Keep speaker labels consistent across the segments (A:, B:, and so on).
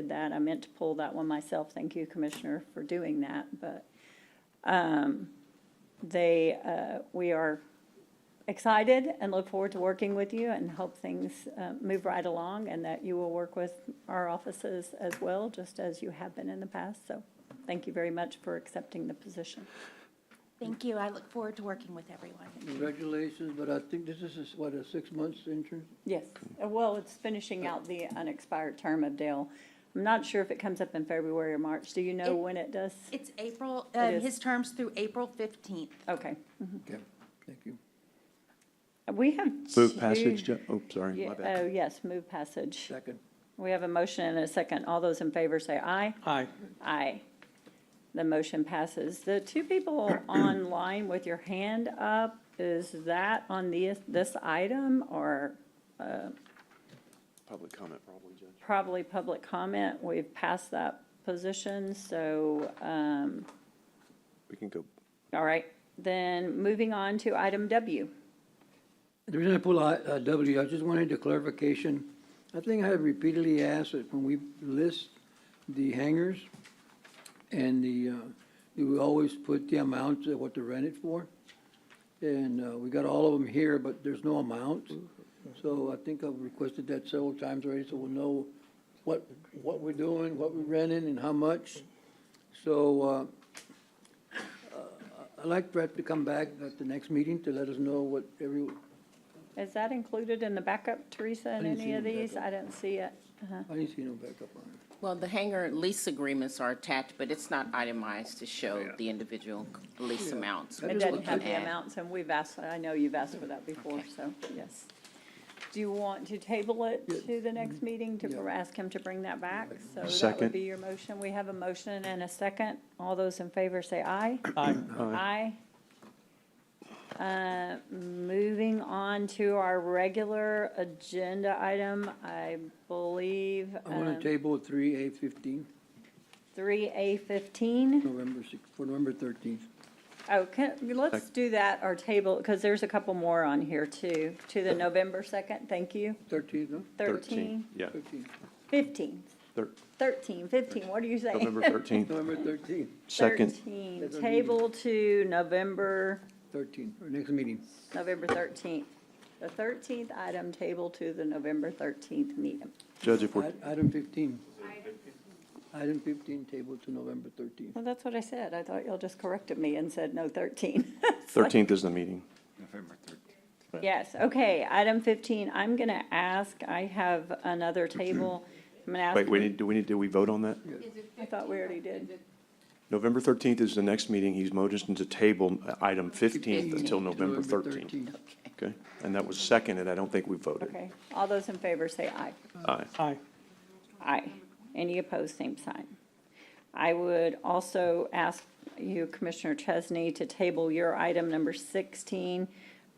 A: did that. I meant to pull that one myself. Thank you, Commissioner, for doing that, but um, they, uh, we are excited and look forward to working with you and hope things uh, move right along and that you will work with our offices as well, just as you have been in the past. So thank you very much for accepting the position.
B: Thank you. I look forward to working with everyone.
A: Mm-hmm.
C: Congratulations, but I think this is, a- what, a six months intern?
A: Yes, Uh, well, it's finishing out the unexpired term of Dale. I'm not sure if it comes up in February or March. Do you know
B: It-
A: when it does?
B: It's April,
A: It
B: um,
A: is.
B: his term's through April fifteenth.
A: Okay,
C: Okay, thank you.
A: we have.
D: Move passage,
A: two-
D: Jo- oh, sorry,
A: Yeah,
D: my
A: Oh,
D: bad.
A: yes, move passage.
C: Second.
A: We have a motion and a second. All those in favor say aye.
C: Aye.
A: Aye. The motion passes. The two people online with your hand up, is that on the, this item or
D: Public comment, probably, Judge.
A: probably public comment? We've passed that position, so, um,
D: We can go,
A: all right. Then moving on to item W.
C: The reason I pull I- uh, W, I just wanted a clarification. I think I have repeatedly asked that when we list the hangars and the, uh, do we always put the amount of what to rent it for? And uh, we got all of them here, but there's no amount. So I think I've requested that several times already, so we'll know what, what we're doing, what we're renting and how much. So uh, I'd like Brett to come back at the next meeting to let us know what every,
A: Is that included in the backup, Teresa, in
C: I didn't see
A: any of
C: any
A: these?
C: backup.
A: I didn't see it.
C: I didn't see no backup on it.
E: Well, the hangar lease agreements are attached, but it's not itemized to show the individual lease amounts.
C: It
A: It
E: which we
A: doesn't
E: can
A: have the
E: add.
A: amounts, and we've asked, I know you've asked for that before,
E: Okay.
A: so, yes. Do you want to table it to the next meeting to
C: Yeah.
A: ask him to bring that back? So that would
D: Second.
A: be your motion. We have a motion and a second. All those in favor say aye.
D: Aye.
A: Aye. Uh, Moving on to our regular agenda item, I believe,
C: I want
A: Um,
C: to table three A fifteen,
A: three A fifteen.
C: November six, for November thirteenth.
A: Oh, can, let's
D: Sec-
A: do that, or table, because there's a couple more on here too, to the November 2nd, thank you,
C: Thirteenth, no?
A: 13,
D: Yeah,
C: 13th.
A: 15,
D: thir-
A: 13, 15, what are you saying?
D: November 13th,
C: November thirteenth,
D: second.
A: 13,
C: That's our meeting.
A: table to November,
C: thirteenth, our next meeting.
A: November 13th. The 13th item, table to the November 13th meeting.
D: Judge, if we're,
C: I- Item fifteen. Item fifteen, table to November thirteenth.
A: Well, that's what I said, I thought y'all just corrected me and said no 13.
D: 13th is the meeting.
A: Yes, okay, item 15, I'm going to ask, I have another table, I'm going to ask.
D: Wait, we need, do we need, do we vote on that?
A: I thought we already did.
D: November 13th is the next meeting. He's motioned to table uh, item 15th until November 13th. Okay? And that was seconded. I don't think we voted.
A: Okay, all those in favor say aye.
D: Aye.
A: Aye. Any opposed, same sign. I would also ask you, Commissioner Chesney, to table your item number 16.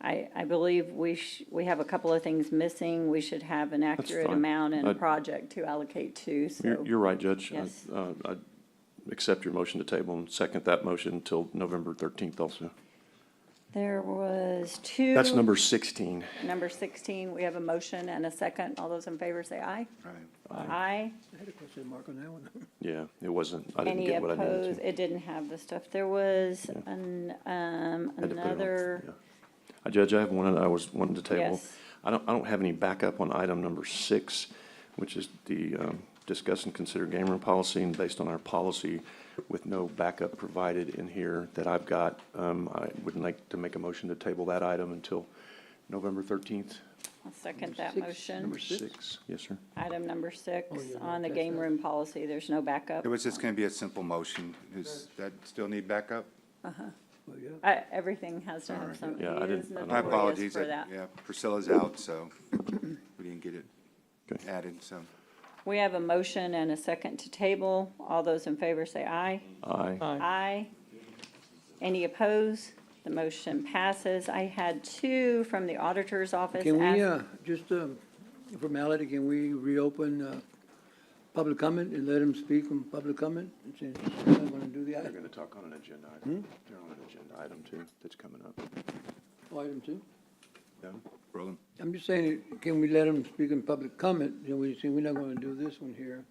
A: I, I believe we sh, we have a couple of things missing. We should have an accurate
D: fine.
A: amount and a
D: I-
A: project to allocate to, so.
D: You're, you're right, Judge. I-
A: Yes.
D: uh, I accept your motion to table and second that motion until November 13th also.
A: There was two.
D: That's number 16.
A: Number 16, we have a motion and a second. All those in favor say aye. Aye.
C: I had a question mark on that one.
D: Yeah, it wasn't. I didn't
A: Any
D: get what I needed to.
A: opposed? It didn't have the stuff. There was an, um,
D: Had to put it on.
A: another,
D: Yeah. Uh, Judge, I have one I was wanting to table.
A: Yes.
D: I don't, I don't have any backup on item number six, which is the um, discuss and consider game room policy. And based on our policy with no backup provided in here that I've got, um, I would like to make a motion to table that item until November 13th.
A: I'll second that
C: six,
A: motion.
D: Number
C: Number six?
D: six, yes, sir.
A: Item number six
C: Oh, yeah,
A: on the
C: that's
A: game
C: that.
A: room policy, there's no backup.
F: It was just going to be a simple motion. Does that still need backup?
C: But yeah,
A: I- Everything has to have
F: Sorry.
A: some, he
D: Yeah, I
A: is
D: didn't- I don't-
F: My
A: notorious
F: apologies.
A: for
F: I-
A: that.
F: Yeah, Priscilla's out, so we didn't get it
D: Okay.
F: added, so.
A: We have a motion and a second to table. All those in favor say aye. Uh,
D: Aye.
A: Aye. Any opposed? The motion passes. I had two from the auditor's office.
C: Can we,
A: ask-
C: uh, just, um, formality, can we reopen, uh, public comment and let him speak on public comment? Since we're not gonna do the
D: They're
C: item,
D: going to talk on an agenda item. They're on an agenda item too, that's coming up.
C: item two.
D: No?
F: Roland?
C: I'm just saying, can we let them speak in public comment? You know, we say, we're not gonna do this one here.